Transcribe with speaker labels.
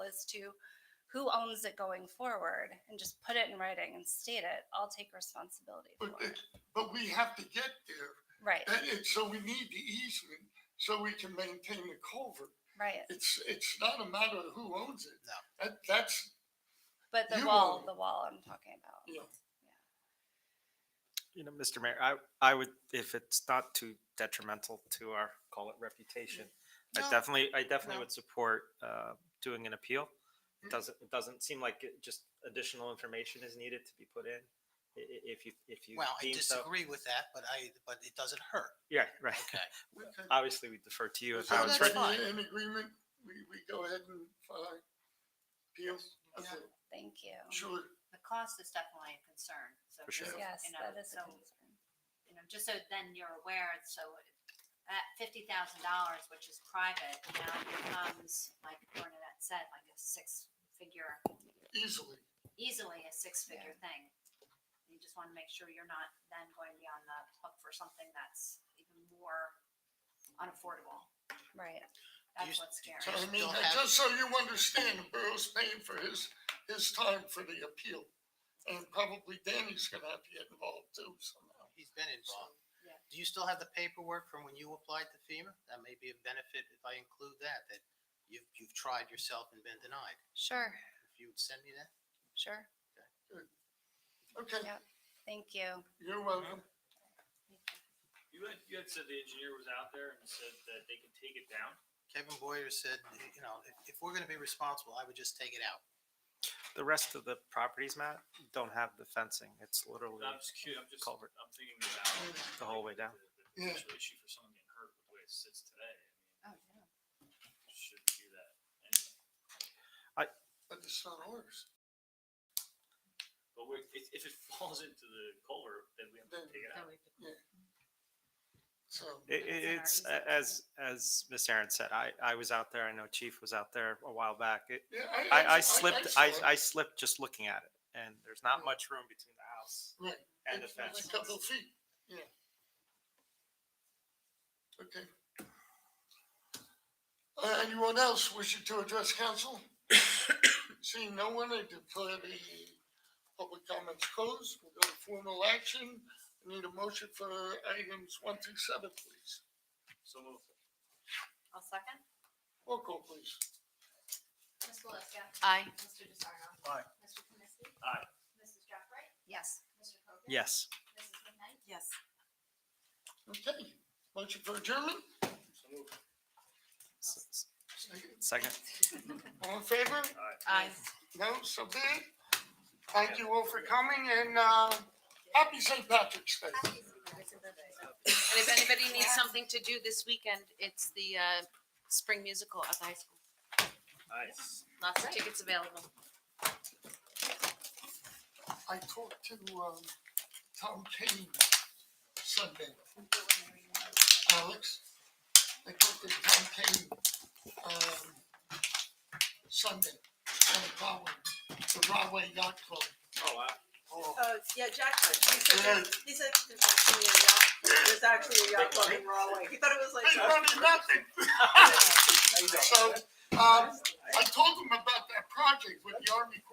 Speaker 1: as to who owns it going forward and just put it in writing and state it. I'll take responsibility for
Speaker 2: But
Speaker 1: it.
Speaker 2: it's, but we have to get there.
Speaker 1: Right,
Speaker 2: That is, so we need the easement so we can maintain the culvert.
Speaker 1: right.
Speaker 2: It's, it's not a matter of who owns it.
Speaker 3: No.
Speaker 2: That, that's,
Speaker 1: But the
Speaker 2: You
Speaker 1: wall,
Speaker 2: own it.
Speaker 1: the wall I'm talking about.
Speaker 2: Yeah.
Speaker 4: You know, Mr. Mayor, I, I would, if it's not too detrimental to our, call it reputation, I
Speaker 3: No.
Speaker 4: definitely, I definitely
Speaker 3: No.
Speaker 4: would support, uh, doing an appeal.
Speaker 2: Mm.
Speaker 4: It doesn't, it doesn't seem like it, just additional information is needed to be put in, i- i- if you, if you
Speaker 3: Well, I
Speaker 4: deem so.
Speaker 3: disagree with that, but I, but it doesn't hurt.
Speaker 4: Yeah, right.
Speaker 3: Okay.
Speaker 2: we can-
Speaker 4: Obviously, we defer to Uh, you
Speaker 2: So
Speaker 4: if how it's
Speaker 3: that's
Speaker 4: written.
Speaker 3: fine.
Speaker 2: everybody In agreement, we, we go ahead and file our appeals. Okay,
Speaker 3: Yeah.
Speaker 1: Thank you.
Speaker 2: Sure.
Speaker 5: the cost is definitely a concern. So
Speaker 4: For sure.
Speaker 5: just,
Speaker 1: Yes,
Speaker 5: you know,
Speaker 1: that is a
Speaker 5: so,
Speaker 1: concern.
Speaker 5: You know, just so then you're aware, it's so at fifty thousand dollars, which is private, now it becomes, like Bernadette said, like a six-figure,
Speaker 2: Easily.
Speaker 5: easily a six-figure thing. You just want to make sure you're not then going to be on the hook for something that's even more unaffordable.
Speaker 1: Right.
Speaker 5: That's
Speaker 3: s-
Speaker 5: what's scary.
Speaker 2: So I mean,
Speaker 3: Still have-
Speaker 2: just so you understand, the borough's paying for his, his time for the appeal. And probably Danny's gonna have to get involved too somehow.
Speaker 3: He's been involved.
Speaker 5: Yeah.
Speaker 3: Do you still have the paperwork from when you applied to FEMA? That may be a benefit if I include that, that you've, you've tried yourself and been denied.
Speaker 1: Sure,
Speaker 3: If you would send me that?
Speaker 1: sure.
Speaker 2: Okay,
Speaker 1: Yeah. Thank you.
Speaker 2: you're welcome.
Speaker 6: You had, you had said the engineer was out there and said that they could take it down.
Speaker 3: Kevin Boyer said, you know, if, if we're gonna be responsible, I would just take it out.
Speaker 4: The rest of the properties, Matt, don't have the fencing. It's literally
Speaker 6: I'm just curious, I'm just,
Speaker 4: Culvert.
Speaker 6: I'm thinking about.
Speaker 4: the whole way down.
Speaker 6: The
Speaker 2: Yeah.
Speaker 6: potential issue for someone getting hurt with the way it sits today. I
Speaker 5: Oh, yeah.
Speaker 6: mean, Shouldn't do that. And,
Speaker 2: But it's not ours.
Speaker 6: but we if, if it falls into the culvert, then we have to
Speaker 2: Then-
Speaker 6: take it out.
Speaker 2: So,
Speaker 4: It, it,
Speaker 5: It's
Speaker 4: it's,
Speaker 5: in our
Speaker 4: a- as, as Miss Aaron said, I, I was out there. I know Chief was out there a while back. It,
Speaker 2: yeah, I.
Speaker 4: I, I slipped, I,
Speaker 2: saw it.
Speaker 4: I slipped just looking at it, and there's not
Speaker 2: Yeah.
Speaker 4: much room between the house
Speaker 2: Right.
Speaker 4: and the
Speaker 2: It's- it's
Speaker 4: fence.
Speaker 2: A couple feet, yeah. Okay. Uh, Anyone else wishing to address council? Seeing no one, I declare the public comments closed. We'll go to formal action. I Need a motion for items one through seven, please.
Speaker 6: So move.
Speaker 5: I'll second.
Speaker 2: Roll call, please.
Speaker 5: Ms. Belisca. Aye. Mr. DeSarno.
Speaker 2: Aye.
Speaker 5: Mr. Kaminsky.
Speaker 6: Aye.
Speaker 5: Mrs. Jeffrey. Yes. Mr. Hogan.
Speaker 4: Yes,
Speaker 5: Mrs. McKnight. Yes.
Speaker 2: Okay, motion for adjournment?
Speaker 6: So move.
Speaker 4: S- s- second.
Speaker 2: All in favor?
Speaker 5: Aye.
Speaker 2: No, so be it. Thank you all for coming and, uh, happy St. Patrick's Day.
Speaker 7: And if anybody needs something to do this weekend, it's the uh, spring musical at the high school.
Speaker 6: Nice.
Speaker 7: Lots of tickets available.
Speaker 2: I talked to, um, Tom Kane Sunday, Alex. I talked to Tom Kane, um, Sunday, on Broadway, the Broadway Yacht Club.
Speaker 6: Oh, wow.
Speaker 2: Oh,
Speaker 8: Uh, yeah, Jack, was. he
Speaker 2: Yeah.
Speaker 8: said, he said, there's actually a yacht, there's actually a yacht club in Rahway. He thought it was like.
Speaker 2: I wanted nothing. Um, So, um, I told him about that project with the Army Corps